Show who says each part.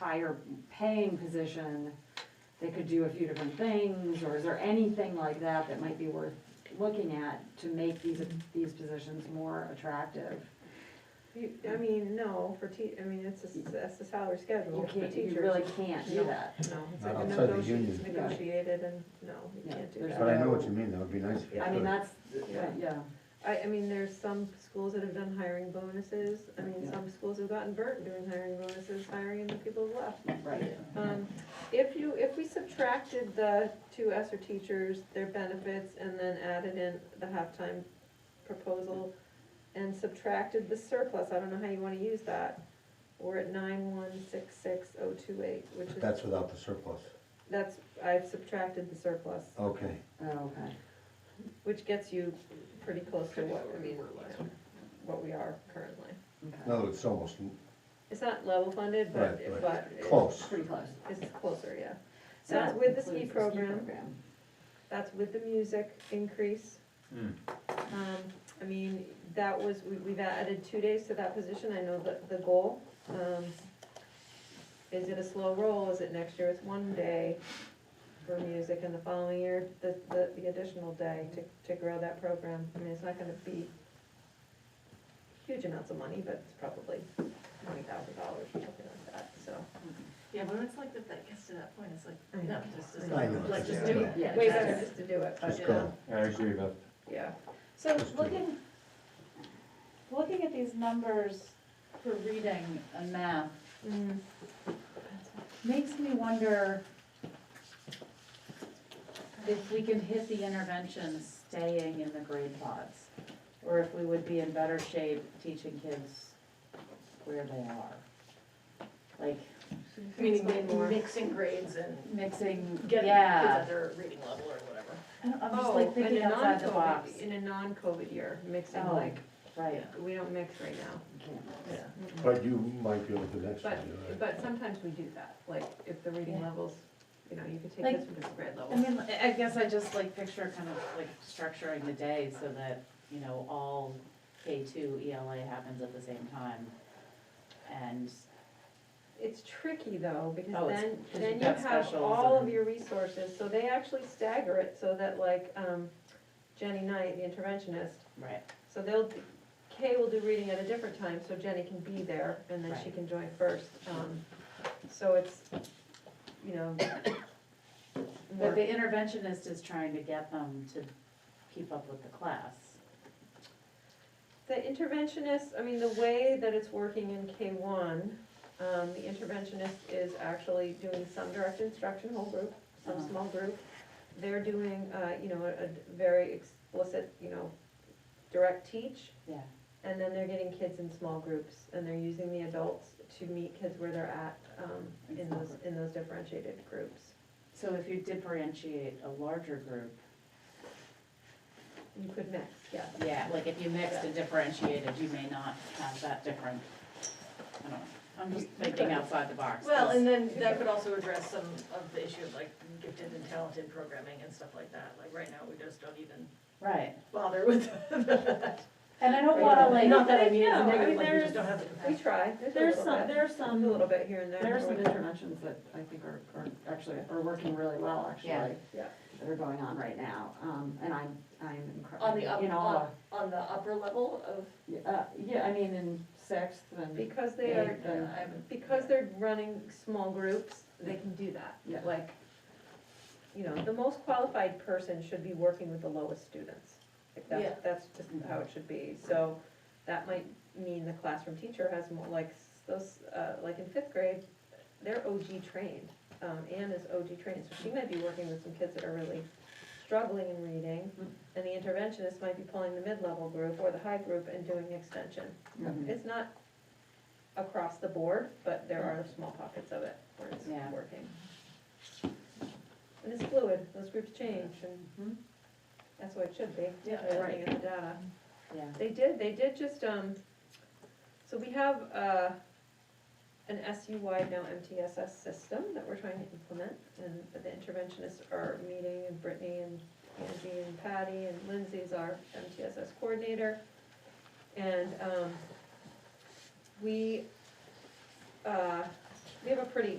Speaker 1: higher paying position, they could do a few different things, or is there anything like that that might be worth looking at to make these, these positions more attractive?
Speaker 2: You, I mean, no, for te, I mean, it's a, s- that's the salary schedule
Speaker 1: You
Speaker 2: for
Speaker 1: can't,
Speaker 2: teachers.
Speaker 1: you really can't do
Speaker 2: No.
Speaker 1: that.
Speaker 2: No, it's
Speaker 3: Not
Speaker 2: like a
Speaker 3: outside the
Speaker 2: negotiation,
Speaker 3: union.
Speaker 2: it's negotiated and, no, you
Speaker 1: Yeah,
Speaker 2: can't do
Speaker 1: there's
Speaker 2: that.
Speaker 3: But I know what you mean, that would be nice if you
Speaker 1: I mean,
Speaker 3: could.
Speaker 1: that's,
Speaker 2: Yeah.
Speaker 1: yeah,
Speaker 2: I, I mean, there's some schools that have done hiring bonuses, I mean,
Speaker 1: Yeah.
Speaker 2: some schools have gotten burnt doing hiring bonuses, hiring and the people have left.
Speaker 1: right.
Speaker 4: Uh,
Speaker 2: Um, if you, if we subtracted the two ESER teachers, their benefits, and then added in the halftime proposal, and subtracted the surplus, I don't know how you wanna use that, we're at nine one six six oh two eight, which
Speaker 3: But
Speaker 2: is,
Speaker 3: That's without the surplus,
Speaker 2: that's, I've subtracted the surplus,
Speaker 3: okay.
Speaker 1: Oh, okay.
Speaker 2: which gets you pretty close to what, I mean,
Speaker 5: Pretty close,
Speaker 2: you know, what we are currently.
Speaker 3: In other words, it's almost
Speaker 2: It's not level funded, but,
Speaker 3: Right, right.
Speaker 2: but it-
Speaker 3: close.
Speaker 1: Pretty close.
Speaker 2: it's closer, yeah. So that's with the ski program. That's with the music increase.
Speaker 5: Hmm.
Speaker 2: Um, I mean, that was, we, we've added two days to that position, I know the, the goal, um, is it a slow roll, is it next year it's one day for music, and the following year, the, the, the additional day to, to grow that program, I mean, it's not gonna be huge amounts of money, but it's probably twenty thousand dollars, something like that, so.
Speaker 6: Yeah, but it's like that, that gets to that point, it's
Speaker 2: I
Speaker 6: like, no,
Speaker 2: know.
Speaker 6: just,
Speaker 3: I know.
Speaker 6: just, like, just do it.
Speaker 1: Yeah.
Speaker 2: Way
Speaker 6: that's
Speaker 2: better
Speaker 6: it.
Speaker 2: just to do it, but,
Speaker 3: Just
Speaker 2: you
Speaker 3: go.
Speaker 2: know,
Speaker 5: I agree with
Speaker 2: yeah.
Speaker 4: So
Speaker 3: Just do it.
Speaker 4: looking, looking at these numbers for reading and math
Speaker 2: Mm,
Speaker 4: makes me wonder if we can hit the intervention staying in the grade pods, or if we would be in better shape teaching kids where they are. Like
Speaker 6: Meaning
Speaker 2: Explain more.
Speaker 6: mixing grades and
Speaker 4: mixing,
Speaker 6: getting kids
Speaker 4: yeah.
Speaker 6: at their reading level or whatever.
Speaker 4: I don't- I'm just
Speaker 2: Oh,
Speaker 4: like
Speaker 2: in
Speaker 4: thinking
Speaker 2: a
Speaker 4: outside the
Speaker 2: non-COVID
Speaker 4: box.
Speaker 2: In a non-COVID year, mixing
Speaker 4: Oh.
Speaker 2: like,
Speaker 4: Right,
Speaker 2: we don't mix right now.
Speaker 6: Yeah.
Speaker 3: But you might be able to do next
Speaker 2: But,
Speaker 3: time, you're right.
Speaker 2: but sometimes we do that, like if the reading
Speaker 4: Yeah.
Speaker 2: levels, you know, you could take
Speaker 4: Like-
Speaker 2: this from this grade
Speaker 4: I
Speaker 2: level.
Speaker 4: mean, I- I guess I just like picture kind of like structuring the day so that, you know, all K two ELA happens at the same time. And,
Speaker 2: It's tricky though, because
Speaker 4: Oh, it's-
Speaker 2: then,
Speaker 4: 'cause
Speaker 2: then
Speaker 4: you've
Speaker 2: you
Speaker 4: got
Speaker 2: have
Speaker 4: specials
Speaker 2: all of
Speaker 4: and-
Speaker 2: your resources, so they actually stagger it so that like, um, Jenny Knight, the interventionist,
Speaker 4: right,
Speaker 2: so they'll, Kay will do reading at a different time, so Jenny can be there and then she
Speaker 4: Right.
Speaker 2: can join first. Um, So it's, you know. more-
Speaker 4: but the interventionist is trying to get them to keep up with the class.
Speaker 2: The interventionist, I mean, the way that it's working in K one, um, the interventionist is actually doing some direct instruction, whole group, some
Speaker 4: Uh-huh.
Speaker 2: small group. They're doing, uh, you know, a, a very explicit, you know, direct teach,
Speaker 4: Yeah,
Speaker 2: and then they're getting kids in small groups, and they're using the adults to meet kids where they're at, um,
Speaker 4: In
Speaker 2: in
Speaker 4: small
Speaker 2: those, in those differentiated groups.
Speaker 4: so if you differentiate a larger group,
Speaker 2: You could mix, yes.
Speaker 4: yeah, like if you mixed and differentiated, you may not have that different, I don't know. I'm just thinking outside the box.
Speaker 6: Well, and then that could also address some of the issue of like gifted and talented programming and stuff like that. Like right now, we just don't even
Speaker 4: Right,
Speaker 6: bother with that.
Speaker 4: and I don't wanna like.
Speaker 6: Not that I mean,
Speaker 2: No, I
Speaker 6: it's
Speaker 2: mean,
Speaker 6: negative, like we
Speaker 2: there's-
Speaker 6: just don't have the
Speaker 2: We
Speaker 6: capacity.
Speaker 2: try,
Speaker 1: There's some, there's
Speaker 2: a
Speaker 1: some.
Speaker 2: little bit here and there.
Speaker 1: There are some interventions that I think are, are actually, are working really well, actually.
Speaker 4: Yeah.
Speaker 2: Yeah.
Speaker 1: That are going on right now, um, and I'm, I'm incredible.
Speaker 6: On the up, on, on the upper level of,
Speaker 1: Uh, yeah, I mean, in sixth and,
Speaker 2: Because they
Speaker 1: Yeah.
Speaker 2: are,
Speaker 6: I haven't.
Speaker 2: because they're running small groups, they can do that.
Speaker 1: Yeah.
Speaker 2: Like, you know, the most qualified person should be working with the lowest students. Like
Speaker 6: Yeah.
Speaker 2: that's, that's just how it should be. So that might mean the classroom teacher has more, like, s- those, uh, like in fifth grade, they're OG trained. Um, Anne is OG trained, so she might be working with some kids that are really struggling in reading. And the interventionist might be pulling the mid-level group or the high group and doing extension.
Speaker 4: Mhm.
Speaker 2: It's not across the board, but there are small pockets of it where it's
Speaker 4: Yeah.
Speaker 2: working. And it's fluid, those groups change, and
Speaker 1: Mhm.
Speaker 2: that's what it should be,
Speaker 6: Yeah,
Speaker 2: by looking at the data.
Speaker 4: Yeah.
Speaker 2: They did, they did just, um, so we have, uh, an SU-wide now MTSS system that we're trying to implement, and the interventionists are meeting, and Brittany and Angie and Patty and Lindsay's our MTSS coordinator. And, um, we, uh, we have a pretty